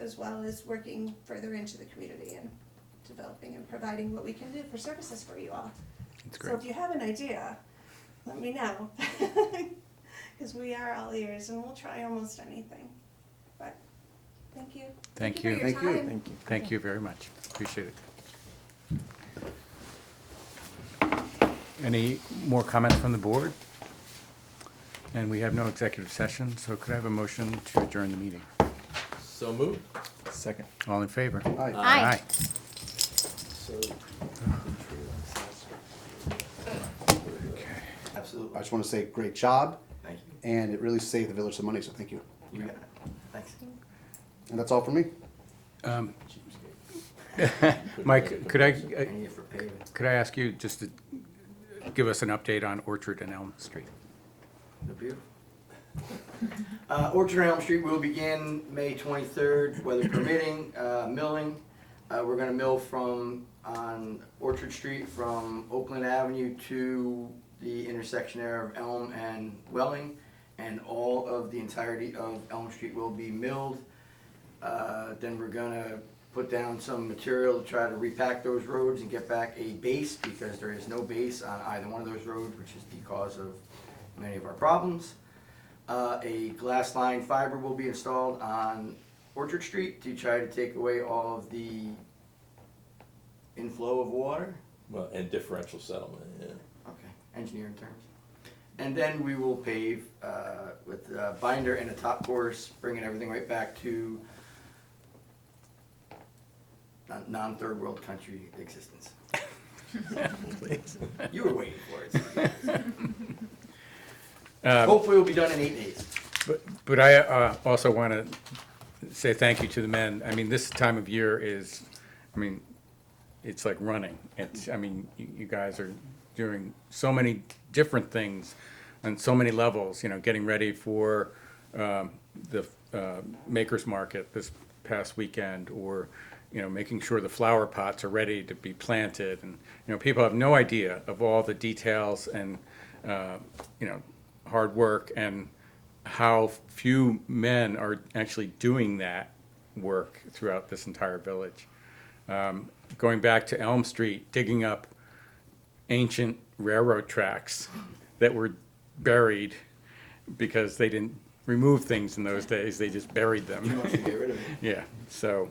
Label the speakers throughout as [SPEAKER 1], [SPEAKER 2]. [SPEAKER 1] as well as working further into the community and developing and providing what we can do for services for you all.
[SPEAKER 2] It's
[SPEAKER 1] So
[SPEAKER 2] great.
[SPEAKER 1] if you have an idea, let me know. Because we are all ears and we'll try almost anything. But, thank you.
[SPEAKER 2] Thank
[SPEAKER 1] for
[SPEAKER 2] you.
[SPEAKER 1] your
[SPEAKER 2] Thank you.
[SPEAKER 1] time.
[SPEAKER 3] Thank you.
[SPEAKER 2] Thank you very much. Appreciate it. Any more comments from the board? And we have no executive session, so could I have a motion to adjourn the meeting?
[SPEAKER 4] So moved.
[SPEAKER 3] Second.
[SPEAKER 2] All in favor?
[SPEAKER 3] Aye.
[SPEAKER 5] Aye.
[SPEAKER 2] Okay.
[SPEAKER 3] I
[SPEAKER 4] Absolutely.
[SPEAKER 3] just want to say, great job,
[SPEAKER 4] Thank you.
[SPEAKER 3] and it really saved the village some money, so thank you.
[SPEAKER 4] You got it. Thanks.
[SPEAKER 3] And that's all for me.
[SPEAKER 2] Um, Mike, could I, uh,
[SPEAKER 4] And you for paving.
[SPEAKER 2] could I ask you just to give us an update on Orchard and Elm Street?
[SPEAKER 4] They're beautiful. Uh, Orchard on Elm Street will begin May 23rd, weather permitting, uh, milling. Uh, We're gonna mill from, on Orchard Street from Oakland Avenue to the intersection there of Elm and Welling. And all of the entirety of Elm Street will be milled. Uh, Then we're gonna put down some material to try to repack those roads and get back a base, because there is no base on either one of those roads, which is the cause of many of our problems. Uh, a glass line fiber will be installed on Orchard Street to try to take away all of the inflow of water.
[SPEAKER 6] Well, and differential settlement, yeah.
[SPEAKER 4] Okay, engineering terms. And then we will pave uh, with a binder and a top course, bringing everything right back to non- non-third world country existence. You were waiting for it.
[SPEAKER 2] Um,
[SPEAKER 4] Hopefully we'll be done in eight days.
[SPEAKER 2] But, but I uh, also want to say thank you to the men. I mean, this time of year is, I mean, it's like running. It's, I mean, you, you guys are doing so many different things on so many levels, you know, getting ready for um, the uh, makers market this past weekend or, you know, making sure the flower pots are ready to be planted. And, you know, people have no idea of all the details and, uh, you know, hard work and how few men are actually doing that work throughout this entire village. Um, going back to Elm Street, digging up ancient railroad tracks that were buried because they didn't remove things in those days, they just buried
[SPEAKER 4] He
[SPEAKER 2] them.
[SPEAKER 4] wants to get rid of it.
[SPEAKER 2] Yeah, so,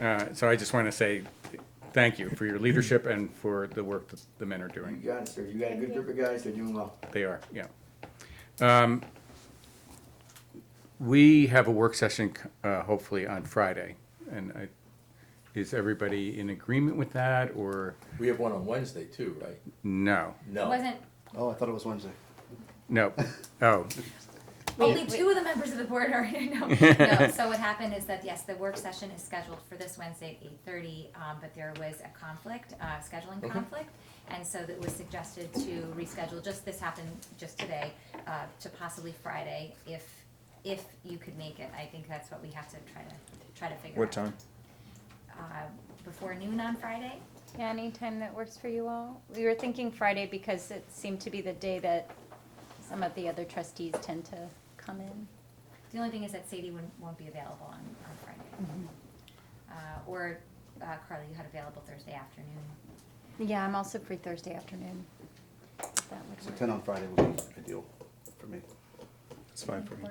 [SPEAKER 2] uh, so I just want to say thank you for your leadership and for the work that the men are doing.
[SPEAKER 4] You got it, sir. You got a good group of guys. They're doing well.
[SPEAKER 2] They are, yeah. Um, We have a work session, uh, hopefully on Friday, and I, is everybody in agreement with that, or
[SPEAKER 6] We have one on Wednesday too, right?
[SPEAKER 2] no?
[SPEAKER 6] No.
[SPEAKER 5] Wasn't,
[SPEAKER 3] Oh, I thought it was Wednesday.
[SPEAKER 2] No, oh,
[SPEAKER 5] only two of the members of the board are, no, no, so what happened is that, yes, the work session is scheduled for this Wednesday at eight thirty, um, but there was a conflict, uh, scheduling conflict. And so it was suggested to reschedule, just this happened just today, uh, to possibly Friday, if, if you could make it, I think that's what we have to try to, try to figure out.
[SPEAKER 3] What time?
[SPEAKER 5] Uh, before noon on Friday,
[SPEAKER 7] Yeah, anytime that works for you all. We were thinking Friday because it seemed to be the day that some of the other trustees tend to come in.
[SPEAKER 5] The only thing is that Sadie won't, won't be available on, on Friday. Uh, or, uh, Carly, you had available Thursday afternoon.
[SPEAKER 7] Yeah, I'm also free Thursday afternoon. if that would
[SPEAKER 3] So
[SPEAKER 7] work.
[SPEAKER 3] ten on Friday would be ideal for me.
[SPEAKER 8] It's fine for me.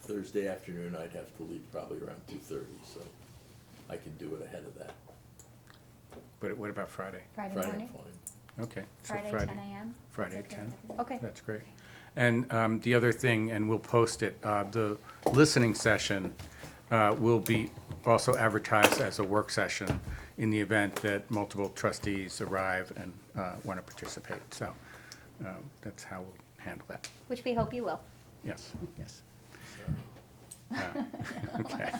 [SPEAKER 6] Thursday afternoon, I'd have to leave probably around two thirty, so I could do it ahead of that.
[SPEAKER 2] but what about Friday?
[SPEAKER 7] Friday
[SPEAKER 6] Friday,
[SPEAKER 7] morning?
[SPEAKER 6] fine.
[SPEAKER 2] Okay. so
[SPEAKER 5] Friday, ten AM?
[SPEAKER 2] Friday,
[SPEAKER 5] Is that
[SPEAKER 2] ten.
[SPEAKER 5] good?
[SPEAKER 7] Okay,
[SPEAKER 2] That's great. And um, the other thing, and we'll post it, uh, the listening session uh, will be also advertised as a work session in the event that multiple trustees arrive and want to participate. So uh, that's how we'll handle that.
[SPEAKER 7] which we hope you will.
[SPEAKER 2] Yes, yes. Uh, Okay.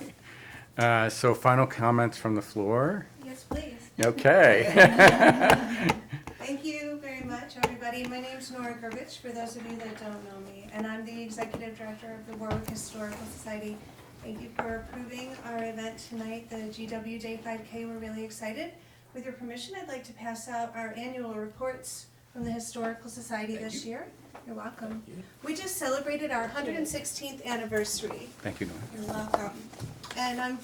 [SPEAKER 2] Uh, So final comments from the floor?
[SPEAKER 1] Yes, please.
[SPEAKER 2] Okay.
[SPEAKER 1] Thank you very much, everybody. My name's Nora Gervich, for those of you that don't know me, and I'm the Executive Director of the Warwick Historical Society. Thank you for approving our event tonight, the GW Day 5K. We're really excited. With your permission, I'd like to pass out our annual reports from the Historical Society this year. You're welcome. We just celebrated our 116th anniversary.
[SPEAKER 2] Thank you, Norm.
[SPEAKER 1] You're welcome. And I'm